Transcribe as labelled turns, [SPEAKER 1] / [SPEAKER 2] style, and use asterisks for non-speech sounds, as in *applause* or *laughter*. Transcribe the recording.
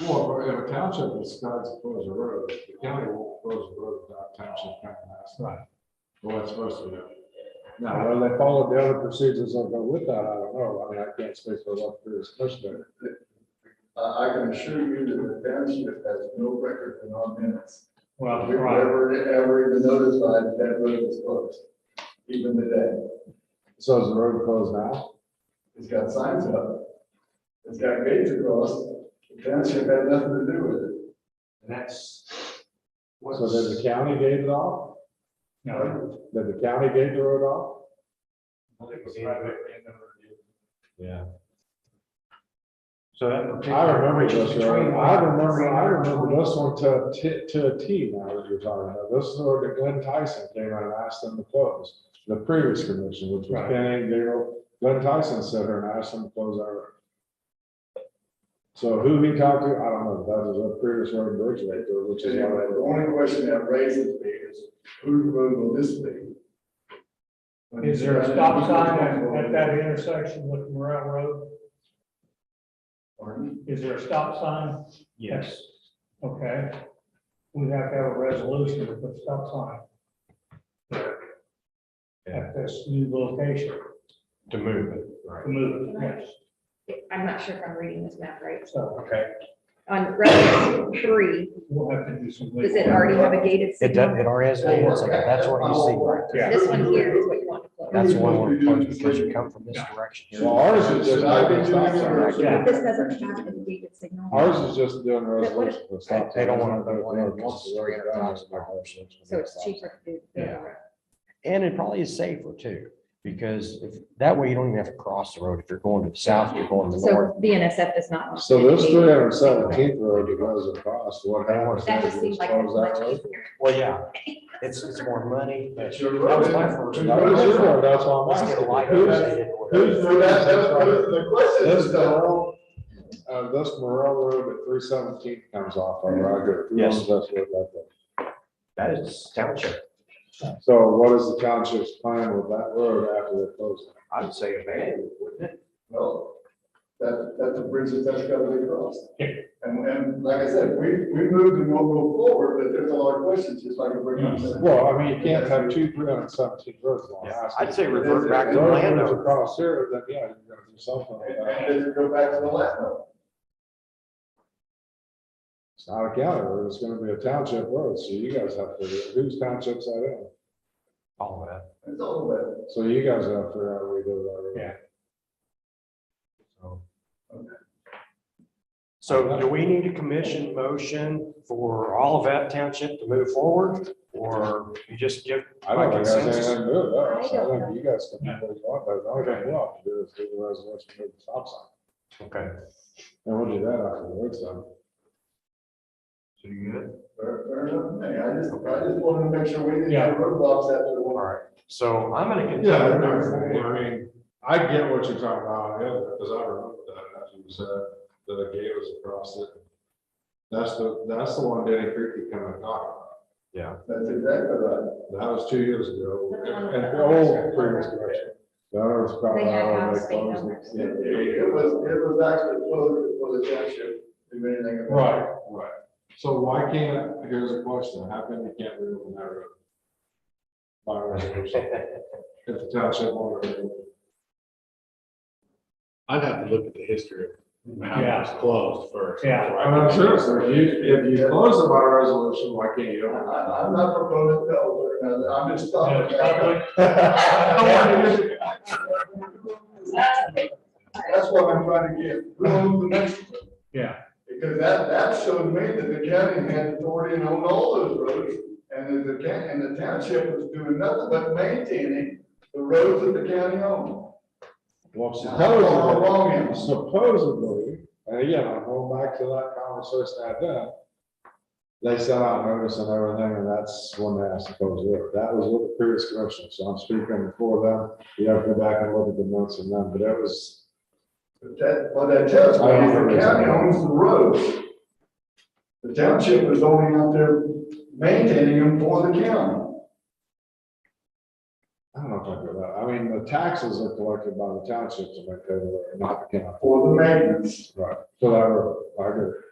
[SPEAKER 1] Well, if a township decides to close a road, the county won't close a road without township county last night. Well, that's supposed to happen.
[SPEAKER 2] Now, whether they follow the other procedures that go with that, I don't know. I mean, I can't speak for what the commissioner.
[SPEAKER 3] I, I can assure you that the township has no record in our minutes.
[SPEAKER 4] Well,
[SPEAKER 3] We've
[SPEAKER 4] right,
[SPEAKER 3] never, ever even notified that road was closed, even today.
[SPEAKER 2] So is the road closed now?
[SPEAKER 3] It's got signs up. It's got gates across. The township had nothing to do with it.
[SPEAKER 4] that's.
[SPEAKER 2] So did the county gave it off?
[SPEAKER 4] No.
[SPEAKER 2] Did the county gave the road off?
[SPEAKER 1] Yeah.
[SPEAKER 4] So that.
[SPEAKER 2] I remember uh, this road.
[SPEAKER 4] Between-
[SPEAKER 2] I remember, I remember this one to, a T- to a T now that you're talking about. This is the road that Glenn Tyson came out and asked them to close. The previous commission, which was
[SPEAKER 4] Right.
[SPEAKER 2] Kenny, Gabriel, Glenn Tyson sat there and asked them to close our road. So who he talked to, I don't know. That was a previous road in Bridgeville, which is.
[SPEAKER 3] Anyway,
[SPEAKER 2] why they
[SPEAKER 3] the
[SPEAKER 2] were-
[SPEAKER 3] only question that raises me is, whose road will this be?
[SPEAKER 4] Is there a stop sign at that intersection with Morel Road?
[SPEAKER 3] Pardon?
[SPEAKER 4] Is there a stop sign? Yes. Okay. We have to have a resolution to put stop sign. At this new location,
[SPEAKER 1] To move it, right.
[SPEAKER 4] to move it, yes,
[SPEAKER 5] I'm not sure if I'm reading this map right.
[SPEAKER 4] so
[SPEAKER 1] Okay.
[SPEAKER 5] On reference three,
[SPEAKER 4] we'll have to do some.
[SPEAKER 5] does it already have a gated
[SPEAKER 6] It does,
[SPEAKER 5] signal?
[SPEAKER 6] it already has data, so that's what you see. right there.
[SPEAKER 5] This one here is what you want to close.
[SPEAKER 6] That's the one we're closing because you come from this direction here.
[SPEAKER 2] Well, ours is just.
[SPEAKER 3] I've been doing it
[SPEAKER 6] Right,
[SPEAKER 3] for-
[SPEAKER 6] yeah.
[SPEAKER 5] But this doesn't have a gated signal.
[SPEAKER 2] Ours is just doing resolution.
[SPEAKER 6] They they don't want to, they want to, it's three hundred thousand dollars.
[SPEAKER 5] So it's cheaper to do. the other way.
[SPEAKER 6] And it probably is safer too, because if, that way you don't even have to cross the road. If you're going to the south, you're going to the north.
[SPEAKER 5] So BNSF does not. want
[SPEAKER 2] So this
[SPEAKER 5] gated.
[SPEAKER 2] three hundred and seventeenth road that goes across, what happens?
[SPEAKER 5] That just seems like
[SPEAKER 2] Close that
[SPEAKER 5] much
[SPEAKER 2] road.
[SPEAKER 5] easier.
[SPEAKER 6] Well, yeah, it's, it's more money. but-
[SPEAKER 3] That's your
[SPEAKER 6] That was
[SPEAKER 3] road.
[SPEAKER 6] my first.
[SPEAKER 2] That was your road, that's why I'm
[SPEAKER 6] Let's get a light.
[SPEAKER 2] asking. Who's-
[SPEAKER 3] Whose road, that, that, the question
[SPEAKER 2] This
[SPEAKER 3] is, the-
[SPEAKER 2] Morel, uh, this Morel Road at three seventeenth comes off on Roger. Who
[SPEAKER 6] Yes.
[SPEAKER 2] owns this road right there?
[SPEAKER 6] That is township.
[SPEAKER 2] So what is the township's plan with that road after they close it?
[SPEAKER 6] I'd say abandoned, wouldn't it?
[SPEAKER 3] well, that, that's a bridge that that's gotta be crossed.
[SPEAKER 4] Yeah.
[SPEAKER 3] And, and like I said, we, we moved and we'll move forward, but there's a lot of questions, just like you bring up.
[SPEAKER 2] Well, I mean, you can't have two three hundred and seventeenth roads on.
[SPEAKER 6] I'd say
[SPEAKER 3] revert
[SPEAKER 6] revert back
[SPEAKER 3] back
[SPEAKER 6] to
[SPEAKER 2] Road goes
[SPEAKER 6] landowner.
[SPEAKER 2] across here, then yeah, you're gonna do something with
[SPEAKER 3] And
[SPEAKER 2] that.
[SPEAKER 3] and then you go back to the last one.
[SPEAKER 2] It's not a county road, it's gonna be a township road, so you guys have to, figure out whose township's that in?
[SPEAKER 6] All that.
[SPEAKER 3] It's all about,
[SPEAKER 2] So you guys have to figure out what we do about it.
[SPEAKER 4] Yeah.
[SPEAKER 6] So- So do we need a commission motion for all of that township to move forward? Or you just give,
[SPEAKER 2] I don't think there's
[SPEAKER 6] Consensus?
[SPEAKER 2] anything to do with that.
[SPEAKER 5] I
[SPEAKER 2] So I
[SPEAKER 5] don't
[SPEAKER 2] think you guys can do what you want, but the only thing we'll have to do is do the resolution for the stop sign.
[SPEAKER 6] okay,
[SPEAKER 2] And we'll do that after the work's done.
[SPEAKER 6] so you good?
[SPEAKER 3] fair, fair enough, to me. I just, I just wanted to make sure we didn't
[SPEAKER 4] Yeah.
[SPEAKER 3] have roadblocks after the
[SPEAKER 6] All
[SPEAKER 3] one.
[SPEAKER 6] right, so I'm gonna continue.
[SPEAKER 1] Yeah, I mean, I get what you're talking about, yeah, because I remember that, as you said, that a gate was across it. That's the, that's the one Danny Creek came and knocked.
[SPEAKER 3] That's exactly right.
[SPEAKER 1] That was two years ago.
[SPEAKER 5] That's on the-
[SPEAKER 1] And the old previous direction.
[SPEAKER 2] The other is probably.
[SPEAKER 5] They had
[SPEAKER 2] how
[SPEAKER 5] house
[SPEAKER 2] they close
[SPEAKER 5] numbers.
[SPEAKER 2] it.
[SPEAKER 3] It, it- it was, it was actually closed before the township knew anything about it.
[SPEAKER 1] Right, right. So why can't, here's a question, how come you can't reopen that road? By
[SPEAKER 2] *laughs*
[SPEAKER 1] resolution, if the township wanted to.
[SPEAKER 7] I'd have to look at the history of how it was
[SPEAKER 4] Yeah.
[SPEAKER 7] closed first.
[SPEAKER 4] Yeah.
[SPEAKER 1] I mean, seriously, if you, if you close it by resolution, why can't you?
[SPEAKER 3] I,
[SPEAKER 1] open it?
[SPEAKER 3] I- I'm not proposing to alter, it. I'm just *laughs*
[SPEAKER 4] Yeah,
[SPEAKER 3] talking.
[SPEAKER 4] it's *laughs* probably-
[SPEAKER 3] That's what I'm trying to get, who owns the next one?
[SPEAKER 4] Yeah,
[SPEAKER 3] Because that, that showed me that the county had authority and owned all those roads, and that the county, and the township was doing nothing but maintaining the roads that the county owned.
[SPEAKER 2] Well,
[SPEAKER 3] How long
[SPEAKER 2] supposedly,
[SPEAKER 3] is it?
[SPEAKER 2] supposedly, and again, I'm going back to that conversation I had. They sent out notice and everything, and that's when they asked to close the road. That was with the previous commission, so I'm speaking for them. You have to go back and look at the notes and them, but it was
[SPEAKER 3] But That, what that tells me
[SPEAKER 2] I
[SPEAKER 3] is
[SPEAKER 2] don't
[SPEAKER 3] the
[SPEAKER 2] think
[SPEAKER 3] county
[SPEAKER 2] so.
[SPEAKER 3] owns the roads. The township is only out there maintaining them for the county.
[SPEAKER 2] I don't know if I do that. I mean, the taxes are collected by the townships and they pay the, not the county.
[SPEAKER 3] for the maintenance.
[SPEAKER 2] Right. So I, I agree.